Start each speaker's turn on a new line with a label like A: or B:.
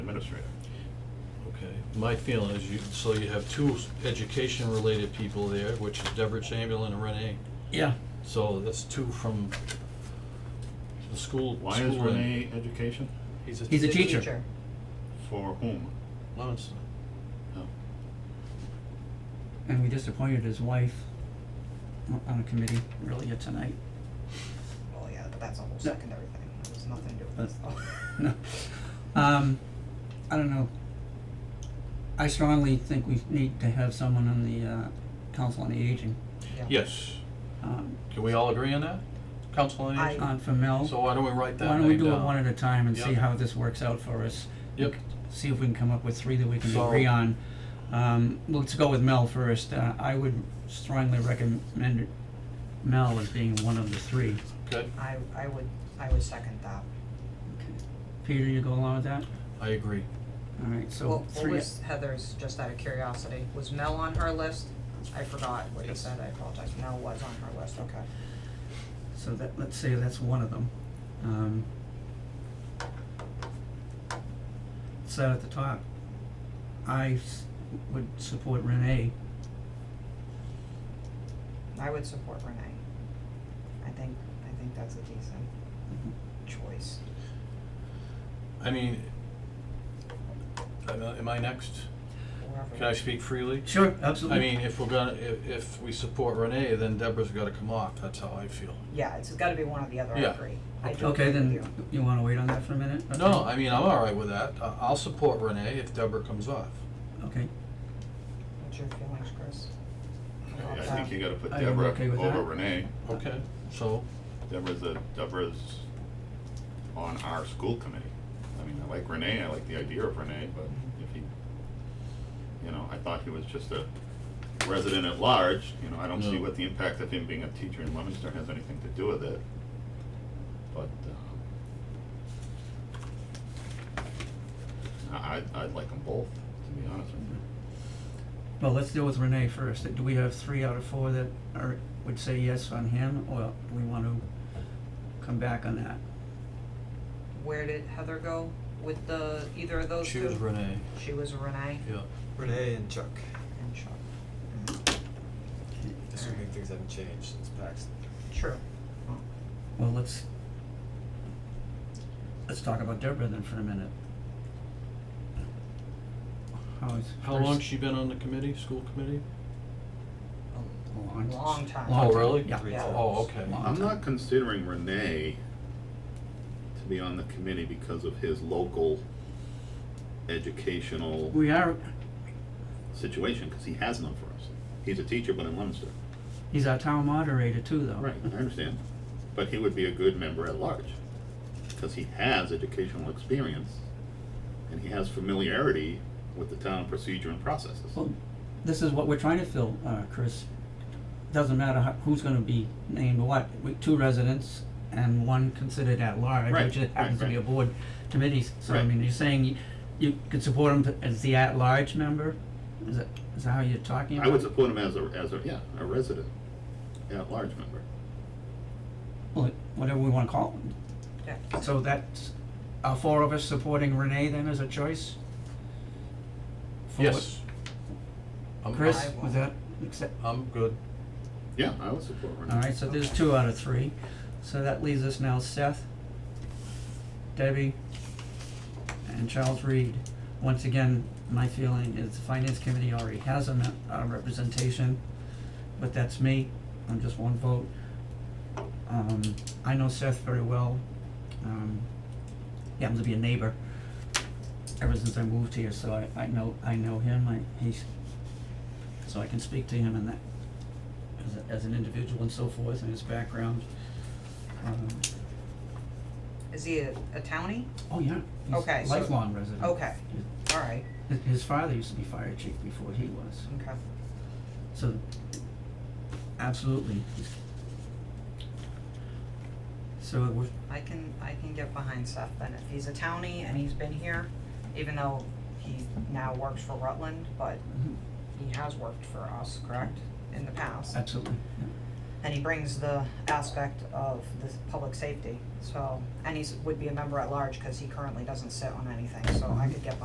A: administrator.
B: Okay, my feeling is you, so you have two s- education-related people there, which is Deborah Chamberlain and Renee.
C: Yeah.
B: So that's two from the school.
A: Why is
B: school and-
A: Renee education?
C: He's a,
D: He's a teacher.
A: For whom?
C: Lemonster.
B: Oh.
A: No.
D: And we just appointed his wife on- on a committee earlier tonight.
E: Well, yeah, but that's a whole secondary thing, There's nothing to do with this though.
D: No. Um, I don't know. I strongly think we need to have someone on the, uh, Council on the Aging,
B: Yes,
D: um,
B: can we all agree on that? Council on Aging?
D: on for Mel.
B: So why don't we write that
D: Why don't we
B: name
D: do it
B: down?
D: one at a time and see
B: Yep.
D: how this works out for us?
B: Yep.
D: See if we can come up with three that we can
B: So-
D: agree on. Um, let's go with Mel first. Uh, I would strongly recommend Mel as being one of the three.
B: Okay,
E: I, I would, I would second that.
D: Peter, you go along with that?
B: I agree.
D: Alright, so
E: What, what
D: three,
E: was Heather's, just out of curiosity, was Mel on her list? I forgot what you said, I apologize, Mel was on her list, okay.
D: so that, let's say that's one of them. Um. So at the top, I s- would support Renee.
E: I would support Renee. I think, I think that's a decent choice.
B: I mean, am I- am I next?
E: Whoever-
B: Can I speak freely?
D: Sure,
B: I
D: absolutely.
B: mean, if we're gonna, if, if we support Renee, then Deborah's gotta come off, that's how I feel.
E: Yeah, it's gotta be one or the other, I
B: Yeah.
E: agree. I do
D: Okay,
E: agree
D: then
E: with you.
D: you wanna wait on that for a minute? Okay.
B: No, I mean, I'm all right with that, I, I'll support Renee if Deborah comes off.
D: Okay,
E: What's your feelings, Chris?
A: I- I
E: About
A: think
E: that?
A: you gotta put
D: I am
A: Deborah
D: okay with
A: over
D: that.
A: Renee.
B: Okay, so,
A: Deborah's a, Deborah's on our school committee. I mean, I like Renee, I like the idea of Renee, but if he, you know, I thought he was just a resident at large, you know, I don't see
B: No.
A: what the impact of him being a teacher in Leominster has anything to do with it. But, um, uh, I, I'd- I'd like them both, to be honest with you.
D: well, let's deal with Renee first. Do we have three out of four that are, would say yes on him, or do we wanna come back on that?
E: Where did Heather go with the, either of those two?
B: choose Renee,
E: She was Renee
B: yeah.
F: Renee and Chuck,
E: and Chuck.
F: assuming things haven't changed since Paxton.
E: True.
D: Well, let's, let's talk about Deborah then for a minute. How is?
B: How
D: first-
B: long's she been on the committee, school committee?
D: a Long.
E: Long time.
D: Long
B: Oh,
D: time,
B: really?
D: Yeah.
F: Three
E: Yeah.
F: times.
B: Oh, okay.
D: Long
A: I'm
D: time.
A: not considering Renee to be on the committee because of his local educational
D: We are,
A: situation, because he has none for us. He's a teacher, but in Leominster.
D: he's our town moderator too, though.
A: Right, I understand. But he would be a good member at large, because he has educational experience, and he has familiarity with the town procedure and processes.
D: Well, this is what we're trying to fill, uh, Chris. Doesn't matter how, who's gonna be named what, we, two residents and one considered at large,
A: Right,
D: which it happens to
A: right,
D: be a
A: right.
D: board committee, so I
A: Right.
D: mean, you're saying you, you could support him as the at-large member? Is that, is that how you're talking about?
A: I would support him as a, as a, yeah, a resident, at-large member.
D: Well, Whatever we wanna call him.
E: Yeah.
D: So that's, are four of us supporting Renee then as a choice? For what-
B: Yes. I'm-
D: Chris,
E: I
D: was
E: won't.
D: that, accept,
B: I'm good.
A: Yeah, I would support Renee.
D: Alright, so there's two out of three, so that leaves us now Seth, Debbie, and Charles Reed. Once again, my feeling is the finance committee already has a, me- a representation, but that's me, I'm just one vote. Um, I know Seth very well, um, he happens to be a neighbor ever since I moved here, so I, I know, I know him, I, he's, so I can speak to him in that as, a- as an individual and so forth and his background. Um,
E: Is he a, a townie?
D: oh yeah, he's
E: Okay,
D: a
E: so-
D: lifelong resident.
E: Okay, all right,
D: His, his father used to be fire chief before he was,
E: okay.
D: so absolutely. So it was,
E: I can, I can get behind Seth then, if he's a townie and he's been here, even though he now works for Rutland, but
D: mhm,
E: he has worked for us, correct, in the past?
D: absolutely, yeah.
E: And he brings the aspect of the public safety, so, and he's, would be a member at large, cause he currently doesn't sit on anything, so I could get